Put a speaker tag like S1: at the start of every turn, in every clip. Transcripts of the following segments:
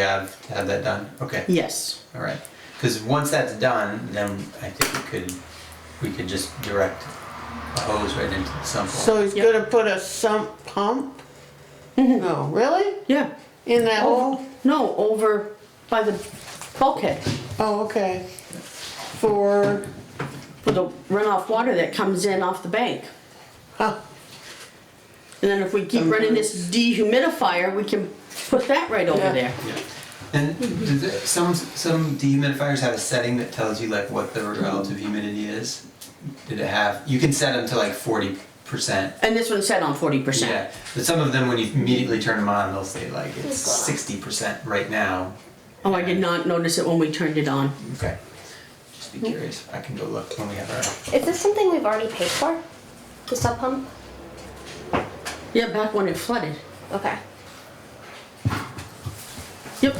S1: have, have that done? Okay,
S2: Yes,
S1: all right. Because once that's done, then I think we could, we could just direct a hose right into the sump. hole.
S3: So he's
S2: Yep.
S3: gonna put a sump pump? No, really?
S2: yeah.
S3: In that hole?
S2: Over, no, over by the bulkhead
S3: Oh, okay. For,
S2: for the runoff water that comes in off the bank.
S3: huh,
S2: And then if we keep running this dehumidifier, we can put that right over
S3: Yeah.
S2: there.
S1: Yeah. And do the- some, some dehumidifiers have a setting that tells you like what the relative humidity is? Did it have, you can set them to like forty percent.
S2: And this one's set on forty percent.
S1: Yeah, but some of them, when you immediately turn them on, they'll say like it's sixty percent right now.
S2: Oh, I did not notice it when we turned it on.
S1: Okay. Just be curious. I can go look when we have our,
S4: Is this something we've already paid for? The sub pump?
S2: Yeah, back when it flooded.
S4: Okay.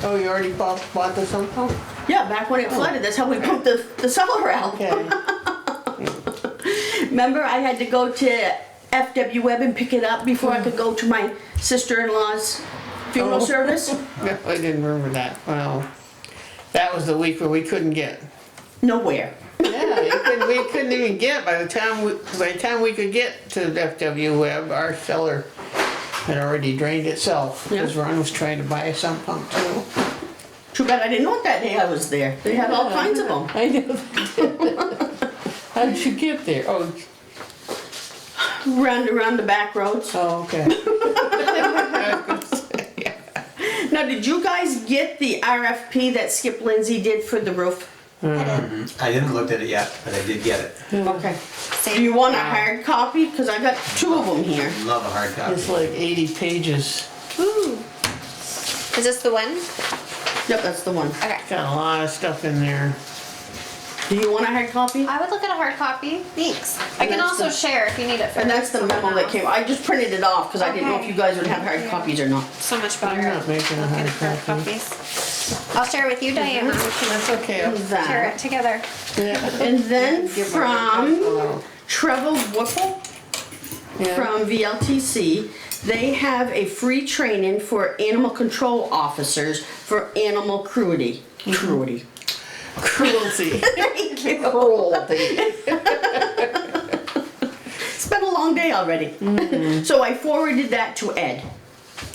S3: oh, you already bought, bought the sump pump?
S2: Yeah, back when it flooded, that's how we pumped the, the cellar out.
S3: Oh. Okay,
S2: Remember, I had to go to FW Web and pick it up before I could go to my sister-in-law's funeral
S3: Oh.
S2: service?
S3: no, I didn't remember that, wow. That was the week where we couldn't get.
S2: Nowhere.
S3: Yeah, you couldn't- we couldn't even get, by the time, we- by the time we could get to FW Web, our cellar had already drained itself. Cause
S2: Yeah.
S3: Ron was trying to buy a sump pump too.
S2: Too bad I didn't know it that day I was there. They had all kinds of them.
S3: I know. How did you get there? Oh,
S2: Round around the back roads.
S3: oh, okay.
S2: Now, did you guys get the RFP that Skip Lindsey did for the roof?
S3: Mm-hmm.
S1: I didn't look at it yet, but I did get it.
S2: Okay. Do you want a hard copy? Because I got two of them here.
S1: Love a hard copy.
S3: It's like eighty pages.
S4: Ooh. Is this the one?
S2: Yep, that's the one.
S4: Okay.
S3: Got a lot of stuff in there.
S2: Do you want a hard copy?
S4: I would look at a hard copy. Thanks. I
S2: And
S4: can
S2: that's
S4: also
S2: the-
S4: share if you need it for
S2: And that's the memo that came. I just printed it off because I didn't know if
S4: Okay.
S2: you guys would have hard copies or not.
S4: So much better.
S3: I'm not making a
S4: looking
S3: hard
S4: for
S3: copy.
S4: copies. I'll share with you, Diana.
S3: That's okay. I'll-
S4: Share
S2: That.
S4: it together.
S3: yeah.
S2: And then
S3: Give my other
S2: from
S3: one
S2: Trevor Whipple.
S3: a little.
S2: from VLTC. They have a free training for animal control officers for animal cruelty. Cruelty.
S3: Cruelty.
S2: Thank you.
S3: Cruelty.
S2: It's been a long day already. So I forwarded that to Ed.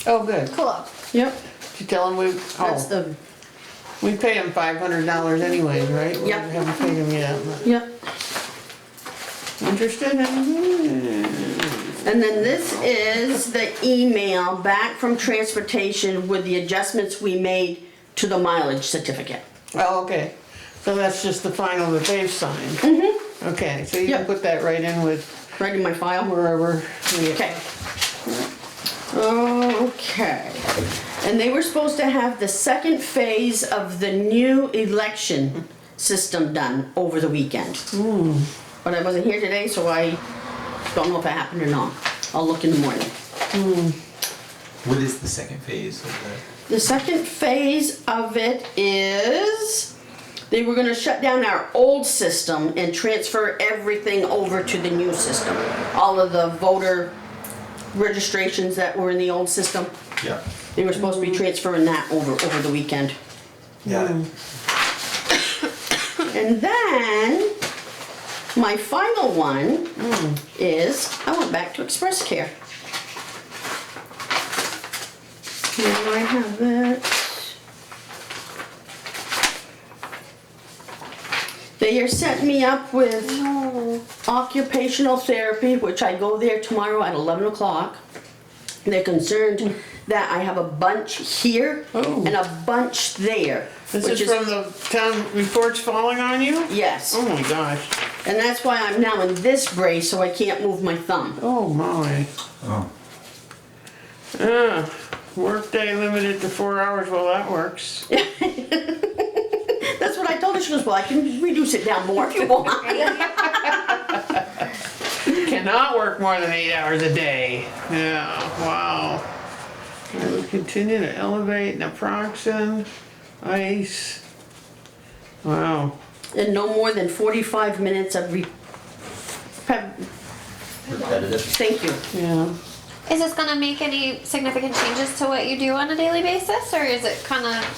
S3: Oh, good.
S4: Cool.
S2: Yep.
S3: Did you tell him we,
S2: That's
S3: oh,
S2: the,
S3: we pay him five hundred dollars anyways, right? We
S2: Yep.
S3: Haven't paid him yet. but-
S2: yep.
S3: Interested in?
S2: And then this is the email back from transportation with the adjustments we made to the mileage certificate.
S3: Oh, okay. So that's just the final that they've signed? Mm-hmm. Okay, so you can
S2: Yep.
S3: put that right in with
S2: Right in my file.
S3: wherever we.
S2: Okay. Okay. And they were supposed to have the second phase of the new election system done over the weekend. But I wasn't here today, so I don't know if it happened or not. I'll look in the morning.
S1: What is the second phase of the?
S2: The second phase of it is they were gonna shut down our old system and transfer everything over to the new system. All of the voter registrations that were in the old system.
S1: Yeah.
S2: They were supposed to be transferring that over, over the weekend.
S1: Got it.
S2: And then, my final one is, I went back to Express Care. Here I have it. They are setting me up with occupational therapy, which I go there tomorrow at eleven o'clock. They're concerned that I have a bunch here
S3: Oh.
S2: and a bunch there,
S3: This
S2: which
S3: is from the town reports falling on you?
S2: Yes.
S3: Oh my gosh.
S2: And that's why I'm now in this brace, so I can't move my thumb.
S3: Oh my.
S1: Oh.
S3: Uh, workday limited to four hours. Well, that works.
S2: That's what I told her. She goes, Well, I can reduce it down more if you want.
S3: Cannot work more than eight hours a day. Yeah, wow. I will continue to elevate naproxen, ice. Wow.
S2: and no more than 45 minutes of re. pe-
S1: Repetitive.
S2: Thank you.
S3: Yeah.
S4: Is this gonna make any significant changes to what you do on a daily basis, or is it kind of